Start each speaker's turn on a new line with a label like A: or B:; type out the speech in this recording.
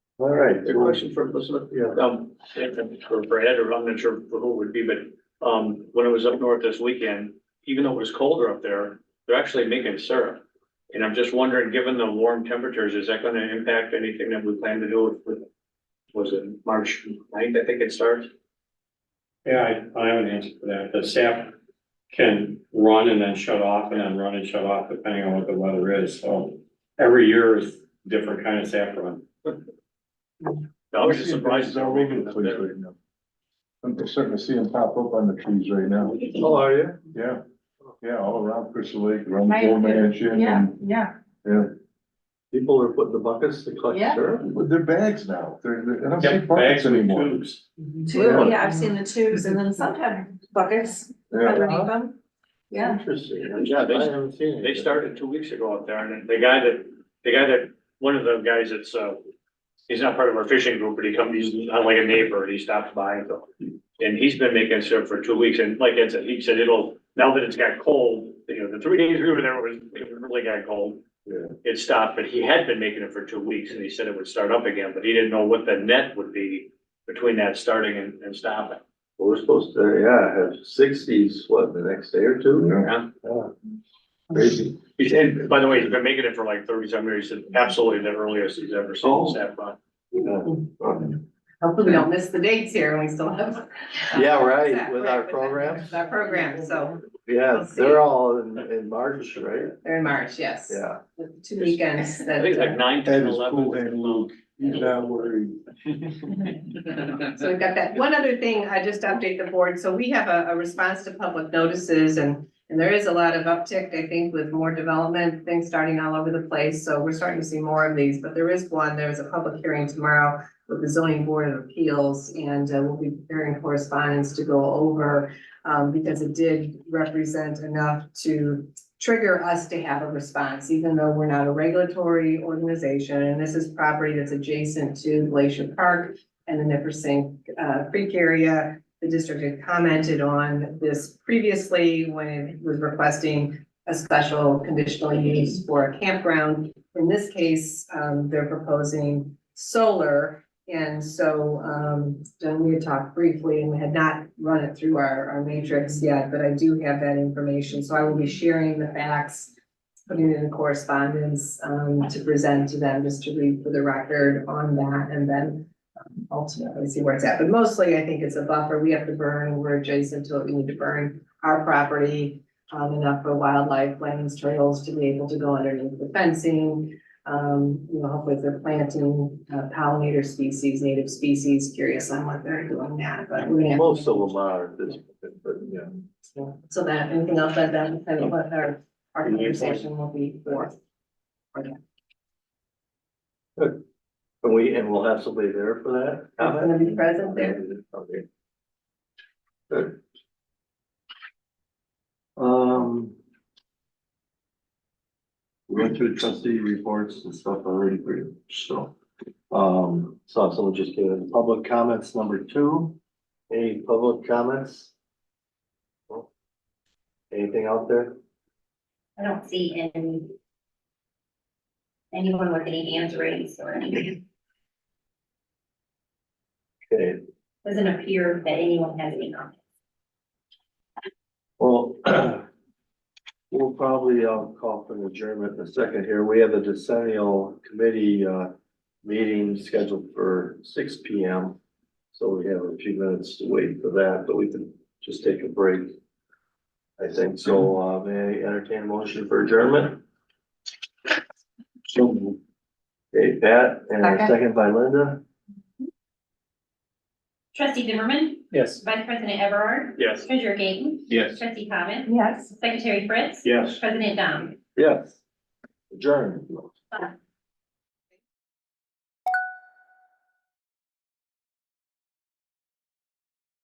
A: All right.
B: The question for, listen,
A: Yeah.
B: um, for Brad, or I'm not sure for who it would be, but, um, when I was up north this weekend, even though it was colder up there, they're actually making syrup. And I'm just wondering, given the warm temperatures, is that gonna impact anything that we plan to do with, was it March 9th? I think it starts?
C: Yeah, I, I have an answer for that. The sap can run and then shut off and then run and shut off depending on what the weather is, so. Every year is different kind of sap run.
B: I was just surprised.
A: Our regular trees right now. I'm starting to see them pop up on the trees right now.
D: Oh,
A: are you? Yeah, yeah, all around Crystal Lake, around the
D: Right.
A: old mansion.
D: Yeah,
A: and-
D: yeah,
A: Yeah,
E: People are putting the buckets to collect
D: Yeah.
E: syrup.
A: but they're bags now. They're, they're- I don't see
C: Yep, bags
A: buckets
C: with
A: anymore.
C: tubes.
D: two, yeah, I've seen the tubes and then some have buckets
A: Yeah,
D: underneath them. Yeah,
E: Interesting.
B: Yeah, they-
E: I haven't seen it.
B: They started two weeks ago up there, and the guy that, the guy that, one of the guys that's, uh, he's not part of our fishing group, but he comes, he's not like a neighbor, and he stops by and go. And he's been making syrup for two weeks, and like Ed said, he said it'll, now that it's got cold, you know, the three days we were there was, it really got cold.
A: Yeah.
B: It stopped, but he had been making it for two weeks, and he said it would start up again, but he didn't know what the net would be between that starting and, and stopping.
E: We're supposed to, yeah, have sixties, what, the next day or two?
B: Yeah.
E: Crazy.
B: He's, and by the way, he's been making it for like thirty some years, and absolutely the earliest he's ever seen
E: Oh.
B: that fun.
E: Yeah.
F: Hopefully we don't miss the dates here and we still have.
E: Yeah, right,
F: Exactly,
E: with our program.
F: With Our program, so
E: Yeah,
F: We'll see.
E: they're all in, in March, right?
F: they're in March, yes.
E: Yeah.
F: With Two weekends
B: I
F: that.
B: think it's like nine,
A: Ed
B: ten,
A: is cool,
B: eleven.
A: Ed Luke. He's not worried.
F: So we've got that. One other thing, I just update the board. So we have a, a response to public notices and, and there is a lot of uptick, I think, with more development, things starting all over the place. So we're starting to see more of these, but there is one, there's a public hearing tomorrow with the zoning board of appeals and uh, we'll be preparing correspondence to go over um, because it did represent enough to trigger us to have a response, even though we're not a regulatory organization. And this is property that's adjacent to Glacier Park and the Nipper Sink uh, Creek area. The district had commented on this previously when it was requesting a special conditional use for a campground. In this case, um, they're proposing solar. And so, um, Jen, we had talked briefly and had not run it through our, our matrix yet, but I do have that information. So I will be sharing the facts, putting it in correspondence, um, to present to them, just to read for the record on that. And then um, ultimately see where it's at, but mostly I think it's a buffer, we have to burn, we're adjacent to it, we need to burn our property. Um, enough for wildlife, lands, trails to be able to go underneath the fencing. Um, you know, hopefully if they're planting uh, pollinator species, native species, curious on what they're doing now, but we're gonna.
E: Most of them are, at this, point, but yeah.
F: have- So that, anything else that, that, kind of what our, our conversation will be for.
E: And we, and we'll have somebody there for that
F: I'm
E: comment?
F: gonna be present there.
E: Okay. Good. Um. We went through trustee reports and stuff already, pretty much, so. Um, so someone just gave in public comments number two. Any public comments? Anything out there?
G: I don't see any. Anyone with any hands raised or anything,
E: Okay,
G: doesn't appear that anyone has any comments.
E: Well, we'll probably, uh call for an adjournment in a second here. We have the decennial committee, uh, meeting scheduled for six P M. So we have a few minutes to wait for that, but we can just take a break. I think so. Uh, may I entertain a motion for adjournment? So moved. Okay, Pat, and a
F: Second.
E: second by Linda.
G: Trustee Zimmerman,
B: Yes.
G: Vice President Everard,
B: Yes.
G: Treasurer Gayton,
B: Yes.
G: Trustee Thomas,
F: Yes.
G: Secretary Fritz,
B: Yes.
G: President Dom.
E: Yes. Adjourn.